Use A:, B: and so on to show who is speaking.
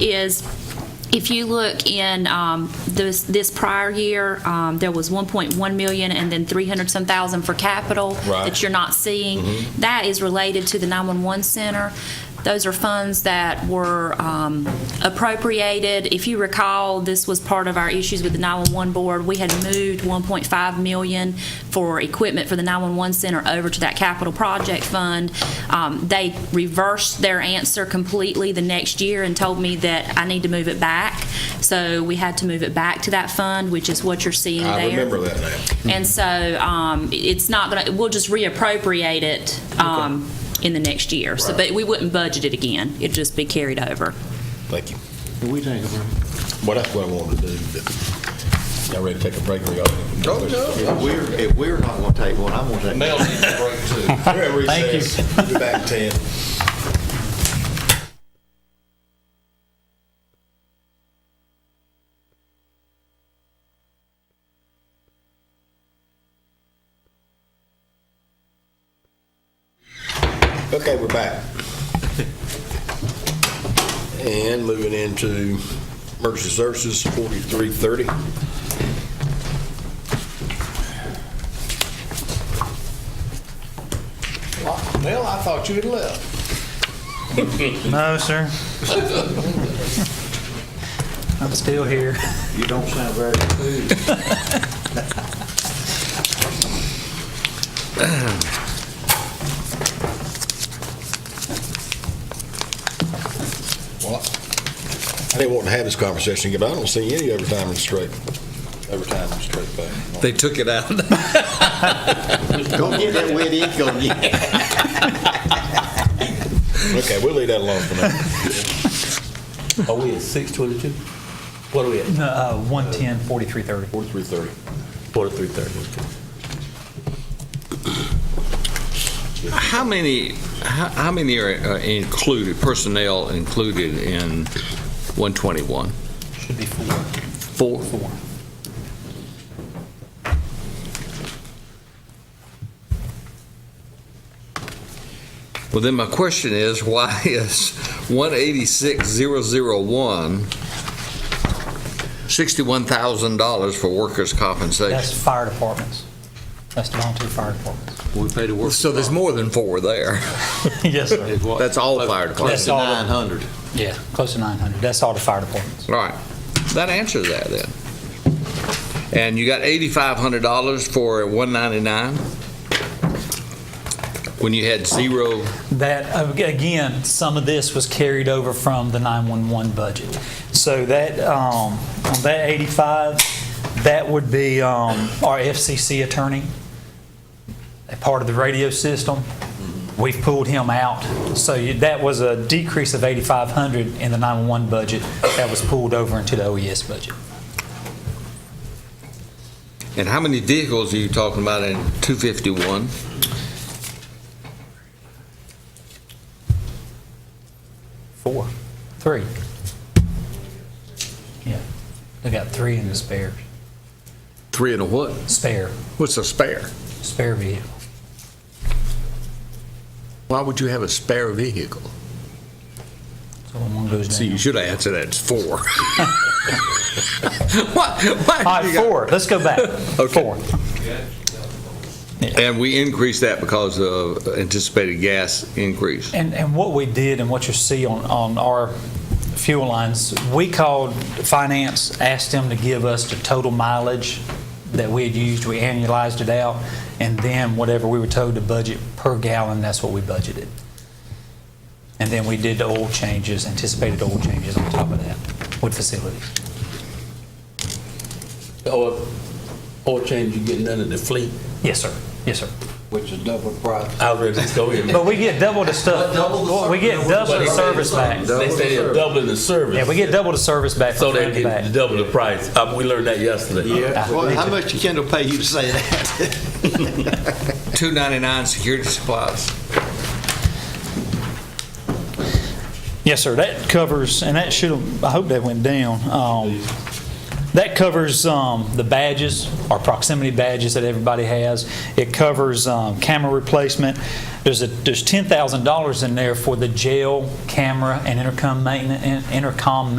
A: is if you look in um, this this prior year, um, there was 1.1 million and then 300 some thousand for capital
B: Right.
A: that you're not seeing.
B: Mm-hmm.
A: That is related to the 911 center. Those are funds that were um, appropriated. If you recall, this was part of our issues with the 911 board. We had moved 1.5 million for equipment for the 911 center over to that capital project fund. Um, They reversed their answer completely the next year and told me that I need to move it back. So we had to move it back to that fund, which is what you're seeing there.
B: I remember that now.
A: And so um, it's not going to, we'll just reappropriate it um, in the next year. So,
B: Right.
A: but we wouldn't budget it again. It'd just be carried over.
B: Thank you.
C: Can we take a break?
B: Well, that's what I wanted to do. but- Y'all ready to take a break or y'all? Oh,
D: If we're, if we're not gonna take one, I'm gonna take.
B: Mel needs a break too. Thank you. We'll be back in ten. Okay, we're back. And moving into emergency services, forty-three thirty. Well, I thought you had left.
E: No, sir. I'm still here.
D: You don't sound very enthused.
B: Well, I didn't want to have this conversation again, but I don't see any overtime and straight, overtime and straight pay.
F: They took it out.
D: Go get that wet ink, go get it.
B: Okay, we'll leave that alone for now.
G: Are we at six twenty-two? What are we at?
E: Uh, 110, 4330.
B: Forty-three thirty.
G: Forty-three thirty.
F: How many, how how many are uh, included, personnel included in 121?
E: Should be four.
F: Four?
E: Four.
F: Well, then my question is, why is 186,001 $61,000 for workers'
E: That's
F: compensation?
E: fire departments. That's the volunteer fire departments.
D: We paid a work.
F: So there's more than four there.
E: Yes, sir.
F: That's all fire
D: Close
F: departments.
D: to
F: All
E: all.
D: nine hundred.
E: Yeah, close to 900. That's all the fire departments.
F: right. That answers that then. And you got $8,500 for 199? When you had zero,
E: That, uh, again, some of this was carried over from the 911 budget. So that, um, on that 85, that would be um, our FCC attorney, a part of the radio system. We've pulled him out. So you- that was a decrease of 8,500 in the 911 budget that was pulled over into the OES budget.
F: and how many vehicles are you talking about in 251?
E: Four. Three. Yeah. They got three in the spare,
F: Three and a what?
E: spare,
H: What's a spare?
E: spare vehicle.
H: Why would you have a spare vehicle?
E: So when one goes down.
H: See, you should answer that, it's four.
F: What? Why
E: All
F: you
E: right,
F: got-
E: four. Let's go back.
F: Okay.
E: Four.
F: And we increased that because of anticipated gas increase.
E: And, and what we did and what you see on, on our fuel lines, we called finance, asked them to give us the total mileage that we had used. We annualized it out, and then whatever we were told to budget per gallon, that's what we budgeted. And then we did the oil changes, anticipated oil changes on top of that with facilities.
G: Oil, Oh, uh, oil change, you get none of the fleet.
E: Yes, sir. Yes, sir.
D: Which is double price.
G: I was ready to go in.
E: But we get double the stuff.
D: Double the
E: Well, We get
D: service.
E: double
D: Double
E: the
D: the
E: service back.
D: service.
G: They say they're doubling the service.
E: Yeah, we get double the service back.
G: So
E: front
G: they
E: to back.
G: get double the price. Uh, we learned that yesterday.
D: Well, how much did Kendall pay you to say that?
F: 299 security supplies.
E: Yes, sir. That covers, and that should have, I hope that went down. Um, That covers um, the badges, our proximity badges that everybody has. It covers um, camera replacement. There's a, there's $10,000 in there for the jail camera and intercom maintenance, intercom